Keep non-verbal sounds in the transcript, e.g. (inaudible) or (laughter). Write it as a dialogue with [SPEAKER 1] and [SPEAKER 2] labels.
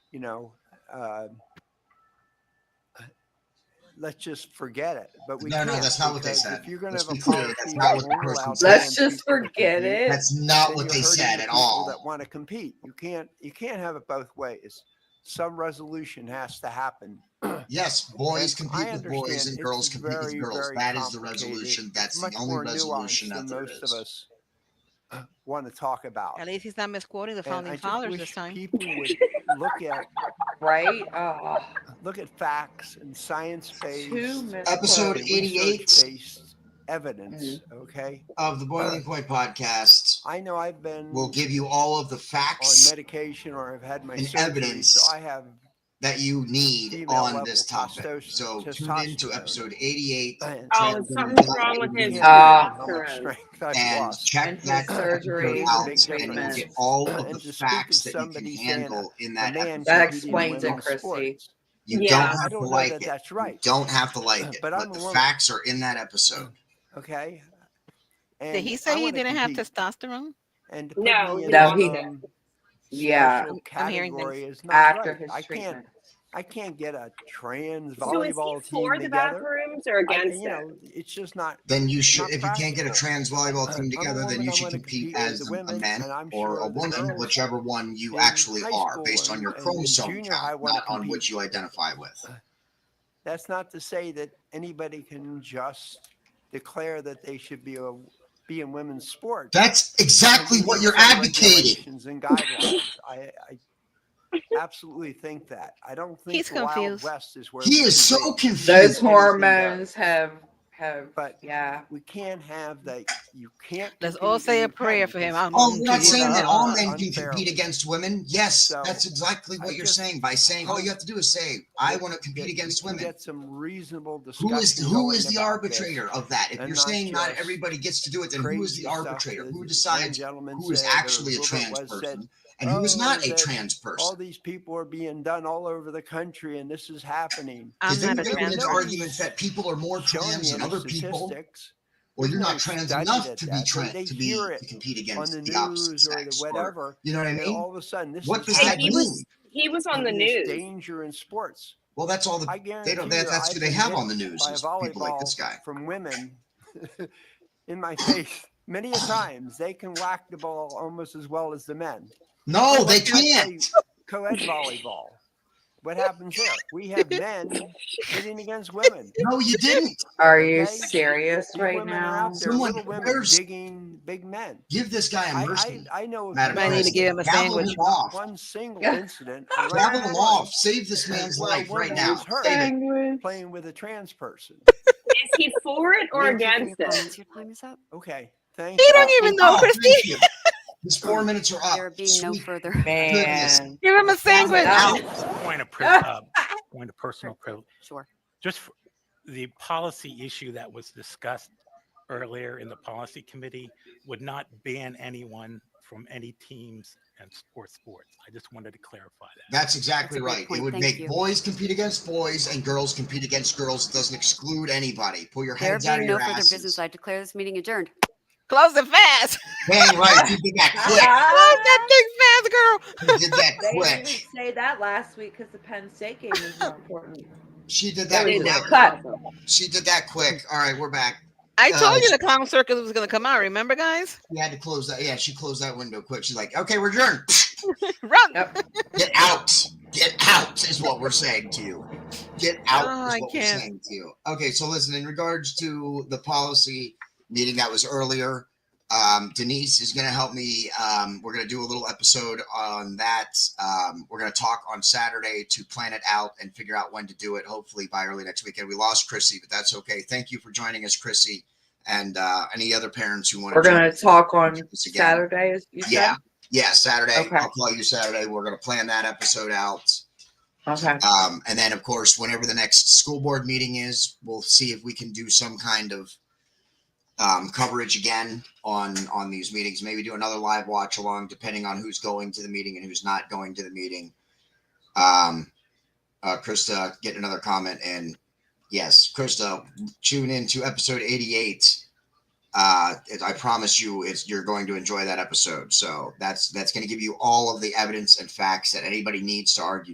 [SPEAKER 1] you know, uh, let's just forget it. But we
[SPEAKER 2] No, no,
[SPEAKER 1] can't,
[SPEAKER 2] that's not what they
[SPEAKER 1] because
[SPEAKER 2] said.
[SPEAKER 1] If you're going to
[SPEAKER 2] Let's
[SPEAKER 1] have a
[SPEAKER 2] be clear,
[SPEAKER 1] policy,
[SPEAKER 2] that's
[SPEAKER 1] that
[SPEAKER 2] not what the
[SPEAKER 1] won't
[SPEAKER 2] person
[SPEAKER 1] allow
[SPEAKER 2] said.
[SPEAKER 3] Let's
[SPEAKER 1] damn
[SPEAKER 3] just
[SPEAKER 1] people to
[SPEAKER 3] forget
[SPEAKER 1] compete,
[SPEAKER 3] it.
[SPEAKER 2] That's not
[SPEAKER 1] then
[SPEAKER 2] what
[SPEAKER 1] you're
[SPEAKER 2] they
[SPEAKER 1] hurting
[SPEAKER 2] said
[SPEAKER 1] the
[SPEAKER 2] at
[SPEAKER 1] people
[SPEAKER 2] all.
[SPEAKER 1] That want to compete. You can't. You can't have it both ways. Some resolution has to happen.
[SPEAKER 2] (clears throat) Yes, boys
[SPEAKER 1] I
[SPEAKER 2] compete with boys
[SPEAKER 1] understand
[SPEAKER 2] and girls
[SPEAKER 1] it's
[SPEAKER 2] compete
[SPEAKER 1] very,
[SPEAKER 2] with girls.
[SPEAKER 1] very
[SPEAKER 2] That is the
[SPEAKER 1] complicated.
[SPEAKER 2] resolution. That's
[SPEAKER 1] much
[SPEAKER 2] the only
[SPEAKER 1] more nuanced
[SPEAKER 2] resolution
[SPEAKER 1] than
[SPEAKER 2] out there
[SPEAKER 1] most of
[SPEAKER 2] is.
[SPEAKER 1] us want to talk about.
[SPEAKER 4] At least he's not misquoting the
[SPEAKER 1] And I
[SPEAKER 4] founding
[SPEAKER 1] just
[SPEAKER 4] fathers
[SPEAKER 1] wish
[SPEAKER 4] this time.
[SPEAKER 1] People
[SPEAKER 4] (laughs)
[SPEAKER 1] would look at
[SPEAKER 3] (laughs) Right? Oh,
[SPEAKER 1] look at facts and science
[SPEAKER 3] two
[SPEAKER 1] based
[SPEAKER 3] minutes.
[SPEAKER 2] Episode Mm-hmm.
[SPEAKER 3] left.
[SPEAKER 2] 88.
[SPEAKER 1] based evidence. Okay,
[SPEAKER 2] Of the Boiling Point podcast,
[SPEAKER 1] I know I've been
[SPEAKER 2] we'll give you all of the
[SPEAKER 1] on
[SPEAKER 2] facts
[SPEAKER 1] medication or I've had my
[SPEAKER 2] and
[SPEAKER 1] surgery,
[SPEAKER 2] evidence
[SPEAKER 1] so I have
[SPEAKER 2] that you need
[SPEAKER 1] Female
[SPEAKER 2] on
[SPEAKER 1] level
[SPEAKER 2] this topic.
[SPEAKER 1] testosterone-
[SPEAKER 2] So tune in to
[SPEAKER 1] testosterone.
[SPEAKER 2] episode 88
[SPEAKER 1] and
[SPEAKER 5] Oh,
[SPEAKER 2] Trans-
[SPEAKER 5] something's wrong with his.
[SPEAKER 3] Yeah. Ah,
[SPEAKER 1] how much
[SPEAKER 3] correct.
[SPEAKER 1] uh, strength I've
[SPEAKER 2] and
[SPEAKER 1] lost.
[SPEAKER 2] check
[SPEAKER 3] And his
[SPEAKER 2] that
[SPEAKER 3] surgery
[SPEAKER 2] episode out
[SPEAKER 1] and
[SPEAKER 2] and you'll
[SPEAKER 1] treatment.
[SPEAKER 2] get all of
[SPEAKER 1] Uh, And to
[SPEAKER 2] the
[SPEAKER 1] speak of
[SPEAKER 2] facts that you can
[SPEAKER 1] somebody saying
[SPEAKER 2] handle in
[SPEAKER 1] A
[SPEAKER 2] that
[SPEAKER 1] man
[SPEAKER 2] episode.
[SPEAKER 1] competing
[SPEAKER 3] That
[SPEAKER 1] in
[SPEAKER 3] explains it,
[SPEAKER 1] women's
[SPEAKER 3] Christy.
[SPEAKER 1] sports.
[SPEAKER 2] You
[SPEAKER 5] Yeah.
[SPEAKER 2] don't
[SPEAKER 1] I
[SPEAKER 2] have to
[SPEAKER 1] don't know
[SPEAKER 2] like
[SPEAKER 1] that
[SPEAKER 2] it.
[SPEAKER 1] that's right.
[SPEAKER 2] You don't have to like it,
[SPEAKER 1] But
[SPEAKER 2] but,
[SPEAKER 1] I'm a
[SPEAKER 2] the
[SPEAKER 1] woman.
[SPEAKER 2] facts are in that episode.
[SPEAKER 1] Okay. And
[SPEAKER 4] Did he say
[SPEAKER 1] I
[SPEAKER 4] he
[SPEAKER 1] wanna
[SPEAKER 4] didn't have
[SPEAKER 1] compete.
[SPEAKER 4] testosterone?
[SPEAKER 1] And to put
[SPEAKER 5] No,
[SPEAKER 1] me in
[SPEAKER 3] No, he
[SPEAKER 1] some
[SPEAKER 3] didn't. Yeah,
[SPEAKER 1] special
[SPEAKER 4] I'm hearing things.
[SPEAKER 1] category is not
[SPEAKER 3] after
[SPEAKER 1] right.
[SPEAKER 3] his
[SPEAKER 1] I
[SPEAKER 3] treatment.
[SPEAKER 1] can't. I can't get a trans
[SPEAKER 5] So is
[SPEAKER 1] volleyball
[SPEAKER 5] he for
[SPEAKER 1] team
[SPEAKER 5] the
[SPEAKER 1] together.
[SPEAKER 5] bathrooms or
[SPEAKER 1] I-
[SPEAKER 5] against
[SPEAKER 1] you
[SPEAKER 5] it?
[SPEAKER 1] know, it's just not
[SPEAKER 2] Then you should,
[SPEAKER 1] Not
[SPEAKER 2] if you can't get a
[SPEAKER 1] practical.
[SPEAKER 2] trans volleyball
[SPEAKER 1] I'm
[SPEAKER 2] team
[SPEAKER 1] a
[SPEAKER 2] together, then
[SPEAKER 1] woman,
[SPEAKER 2] you
[SPEAKER 1] I
[SPEAKER 2] should
[SPEAKER 1] wanna compete
[SPEAKER 2] compete
[SPEAKER 1] with
[SPEAKER 2] as
[SPEAKER 1] the
[SPEAKER 2] a
[SPEAKER 1] women,
[SPEAKER 2] man
[SPEAKER 1] and I'm
[SPEAKER 2] or
[SPEAKER 1] sure
[SPEAKER 2] a
[SPEAKER 1] the
[SPEAKER 2] woman,
[SPEAKER 1] girls
[SPEAKER 2] whichever one you
[SPEAKER 1] in
[SPEAKER 2] actually
[SPEAKER 1] high
[SPEAKER 2] are,
[SPEAKER 1] school
[SPEAKER 2] based on
[SPEAKER 1] and-
[SPEAKER 2] your
[SPEAKER 1] and in
[SPEAKER 2] chromosome
[SPEAKER 1] junior
[SPEAKER 2] count,
[SPEAKER 1] high wanna
[SPEAKER 2] not on what
[SPEAKER 1] compete.
[SPEAKER 2] you identify with.
[SPEAKER 1] Uh, That's not to say that anybody can just declare that they should be a, be in women's sports.
[SPEAKER 2] That's exactly
[SPEAKER 1] There
[SPEAKER 2] what
[SPEAKER 1] need
[SPEAKER 2] you're
[SPEAKER 1] some
[SPEAKER 2] advocating.
[SPEAKER 1] regulations And guidelines. I, I absolutely think that. I don't think
[SPEAKER 4] He's
[SPEAKER 1] the Wild
[SPEAKER 4] confused.
[SPEAKER 1] West is where
[SPEAKER 2] He
[SPEAKER 1] we
[SPEAKER 2] is
[SPEAKER 1] should
[SPEAKER 2] so
[SPEAKER 1] be,
[SPEAKER 3] Those
[SPEAKER 2] confused.
[SPEAKER 3] hormones have have.
[SPEAKER 1] But
[SPEAKER 3] Yeah.
[SPEAKER 1] we can't have that. You can't.
[SPEAKER 4] Let's
[SPEAKER 1] compete
[SPEAKER 4] all say a
[SPEAKER 1] and you can
[SPEAKER 4] prayer for him.
[SPEAKER 1] because
[SPEAKER 4] I'm
[SPEAKER 2] Oh,
[SPEAKER 4] going
[SPEAKER 2] you're
[SPEAKER 4] to
[SPEAKER 2] not
[SPEAKER 4] do
[SPEAKER 2] saying
[SPEAKER 4] that.
[SPEAKER 2] that all
[SPEAKER 1] Unfairly.
[SPEAKER 2] men can compete against women? Yes,
[SPEAKER 1] uh, So,
[SPEAKER 2] that's exactly
[SPEAKER 1] I
[SPEAKER 2] what you're
[SPEAKER 1] just
[SPEAKER 2] saying by saying all you have to do is say, I want to compete
[SPEAKER 1] that we
[SPEAKER 2] against
[SPEAKER 1] can
[SPEAKER 2] women.
[SPEAKER 1] Get some reasonable discussion.
[SPEAKER 2] Who is who
[SPEAKER 1] going
[SPEAKER 2] is the
[SPEAKER 1] about this.
[SPEAKER 2] arbitrator of that? If
[SPEAKER 1] and
[SPEAKER 2] you're
[SPEAKER 1] not
[SPEAKER 2] saying not
[SPEAKER 1] just
[SPEAKER 2] everybody gets to do it, then who is
[SPEAKER 1] Crazy
[SPEAKER 2] the
[SPEAKER 1] stuff
[SPEAKER 2] arbitrator?
[SPEAKER 1] that
[SPEAKER 2] Who
[SPEAKER 1] the
[SPEAKER 2] decides
[SPEAKER 1] young gentleman
[SPEAKER 2] who is
[SPEAKER 1] said, or
[SPEAKER 2] actually a
[SPEAKER 1] Wilbur
[SPEAKER 2] trans
[SPEAKER 1] West said,
[SPEAKER 2] person and who is
[SPEAKER 1] "Oh,
[SPEAKER 2] not a
[SPEAKER 1] that
[SPEAKER 2] trans
[SPEAKER 1] all
[SPEAKER 2] person.
[SPEAKER 1] these people are being done all over the country and this is happening.
[SPEAKER 4] I'm
[SPEAKER 2] Because then
[SPEAKER 4] not
[SPEAKER 2] you
[SPEAKER 4] a
[SPEAKER 2] get
[SPEAKER 4] trans
[SPEAKER 2] into
[SPEAKER 1] person.
[SPEAKER 2] arguments that people are more
[SPEAKER 1] Show me
[SPEAKER 2] trans than
[SPEAKER 1] any
[SPEAKER 2] other people,
[SPEAKER 1] statistics
[SPEAKER 2] or you're not
[SPEAKER 1] They
[SPEAKER 2] trans
[SPEAKER 1] studied
[SPEAKER 2] enough
[SPEAKER 1] it,
[SPEAKER 2] to be
[SPEAKER 1] that. They- they
[SPEAKER 2] trans to be
[SPEAKER 1] hear
[SPEAKER 2] to
[SPEAKER 1] it
[SPEAKER 2] compete
[SPEAKER 1] on
[SPEAKER 2] against
[SPEAKER 1] the
[SPEAKER 2] the
[SPEAKER 1] news
[SPEAKER 2] opposite
[SPEAKER 1] or the
[SPEAKER 2] sex, or
[SPEAKER 1] whatever.
[SPEAKER 2] you know what I
[SPEAKER 1] And
[SPEAKER 2] mean?
[SPEAKER 1] all of a sudden, this
[SPEAKER 2] What
[SPEAKER 1] is
[SPEAKER 2] does that
[SPEAKER 5] he
[SPEAKER 1] happening.
[SPEAKER 2] mean?
[SPEAKER 5] was- He was on the
[SPEAKER 1] And there's
[SPEAKER 5] news.
[SPEAKER 1] Danger in sports.
[SPEAKER 2] Well, that's all the
[SPEAKER 1] I guarantee
[SPEAKER 2] (laughs) they don't.
[SPEAKER 1] you
[SPEAKER 2] That, that's
[SPEAKER 1] I've
[SPEAKER 2] who they
[SPEAKER 1] been
[SPEAKER 2] have
[SPEAKER 1] hit
[SPEAKER 2] on the news.
[SPEAKER 1] by a
[SPEAKER 2] is People like this
[SPEAKER 1] volleyball
[SPEAKER 2] guy.
[SPEAKER 1] from women (laughs) in
[SPEAKER 2] (laughs)
[SPEAKER 1] my face many a times. They can whack the ball almost as well as the men.
[SPEAKER 2] No,
[SPEAKER 1] Why
[SPEAKER 2] Oh, they
[SPEAKER 1] can't
[SPEAKER 2] can't.
[SPEAKER 1] Co-ed volleyball. What happens there? We
[SPEAKER 2] (laughs)
[SPEAKER 1] have men hitting against women.
[SPEAKER 2] No, you didn't.
[SPEAKER 3] Are you
[SPEAKER 1] Okay.
[SPEAKER 3] serious
[SPEAKER 1] These
[SPEAKER 3] right
[SPEAKER 1] women are out
[SPEAKER 3] now?
[SPEAKER 1] there,
[SPEAKER 2] Someone
[SPEAKER 1] little women
[SPEAKER 2] wears-
[SPEAKER 1] digging big men.
[SPEAKER 2] Give this guy a
[SPEAKER 1] I,
[SPEAKER 2] mercy.
[SPEAKER 1] I, I know of
[SPEAKER 2] Madam
[SPEAKER 4] I need to
[SPEAKER 2] President.
[SPEAKER 4] give him a
[SPEAKER 2] Gavel
[SPEAKER 4] sandwich.
[SPEAKER 2] him off.
[SPEAKER 1] one single
[SPEAKER 3] Yeah.
[SPEAKER 1] incident.
[SPEAKER 2] Gavel
[SPEAKER 1] around
[SPEAKER 2] him
[SPEAKER 1] the
[SPEAKER 2] off.
[SPEAKER 1] world
[SPEAKER 2] Save this man's
[SPEAKER 1] where a
[SPEAKER 2] life right
[SPEAKER 1] woman
[SPEAKER 2] now.
[SPEAKER 1] was hurt
[SPEAKER 2] Save it.
[SPEAKER 1] Playing with a trans person.
[SPEAKER 5] Is he for it or against it?
[SPEAKER 6] Your time is up.
[SPEAKER 1] Okay, thank
[SPEAKER 4] They
[SPEAKER 1] you.
[SPEAKER 4] don't even know,
[SPEAKER 2] Oh,
[SPEAKER 4] Christy.
[SPEAKER 2] thank you. His four minutes are
[SPEAKER 6] There
[SPEAKER 2] up.
[SPEAKER 6] being no
[SPEAKER 2] Ah, Sweet.
[SPEAKER 6] further. (laughs)
[SPEAKER 3] Man.
[SPEAKER 4] Give him a sandwich.
[SPEAKER 3] Wow.
[SPEAKER 7] Point of, pri- uh, point of personal privilege.
[SPEAKER 6] Sure.
[SPEAKER 7] Just for the policy issue that was discussed earlier in the policy committee would not ban anyone from any teams and sports sports. I just wanted to clarify that.
[SPEAKER 2] That's exactly
[SPEAKER 6] That's a great
[SPEAKER 2] right. It
[SPEAKER 6] point.
[SPEAKER 2] would
[SPEAKER 6] Thank
[SPEAKER 2] make
[SPEAKER 6] you.
[SPEAKER 2] boys compete against boys and girls compete against girls. It doesn't exclude anybody. Pull your
[SPEAKER 6] There
[SPEAKER 2] heads out of
[SPEAKER 6] being no
[SPEAKER 2] your
[SPEAKER 6] further
[SPEAKER 2] asses.
[SPEAKER 6] business, I declare this meeting adjourned.
[SPEAKER 4] Close it fast.
[SPEAKER 2] Dang right, you did
[SPEAKER 6] (laughs)
[SPEAKER 2] that
[SPEAKER 4] Close (laughs) that thing fast, girl.
[SPEAKER 2] quick. You did that
[SPEAKER 3] They didn't
[SPEAKER 2] quick.
[SPEAKER 3] even say that last week because the Penn State game is more important.
[SPEAKER 2] She did that
[SPEAKER 3] That was
[SPEAKER 2] quick.
[SPEAKER 3] awesome.
[SPEAKER 2] She did that quick. All right, we're back.
[SPEAKER 4] I
[SPEAKER 2] Uh,
[SPEAKER 4] told you the clown circus was going to come out. Remember, guys? (laughs)
[SPEAKER 2] We had to close that. Yeah, she closed that window quick. She's like, okay, we're adjourned.
[SPEAKER 4] Run.
[SPEAKER 3] Yep.
[SPEAKER 2] Get out. Get out is what we're saying to you. Get out
[SPEAKER 4] Oh,
[SPEAKER 2] is
[SPEAKER 4] I
[SPEAKER 2] what we're
[SPEAKER 4] can't.
[SPEAKER 2] saying to you. Okay, so listen, in regards to the policy meeting that was earlier, um, Denise is going to help me. Um, we're going to do a little episode on that. Um, we're going to talk on Saturday to plan it out and figure out when to do it, hopefully by early next weekend. We lost Chrissy, but that's okay. Thank you for joining us, Chrissy, and uh, any other parents who want
[SPEAKER 3] We're gonna talk on
[SPEAKER 2] Once again.
[SPEAKER 3] Saturday. as You
[SPEAKER 2] Yeah.
[SPEAKER 3] said.
[SPEAKER 2] Yeah, Saturday.
[SPEAKER 3] Okay.
[SPEAKER 2] I'll call you Saturday. We're going to plan that episode out.
[SPEAKER 3] Okay.
[SPEAKER 2] Um, and then, of course, whenever the next school board meeting is, we'll see if we can do some kind of um, coverage again on on these meetings. Maybe do another live watch along, depending on who's going to the meeting and who's not going to the meeting. Um, uh, Krista, get another comment in. Yes, Krista, tune in to episode eighty-eight. Uh, it- I promise you, it's you're going to enjoy that episode. So that's that's going to give you all of the evidence and facts that anybody needs to argue.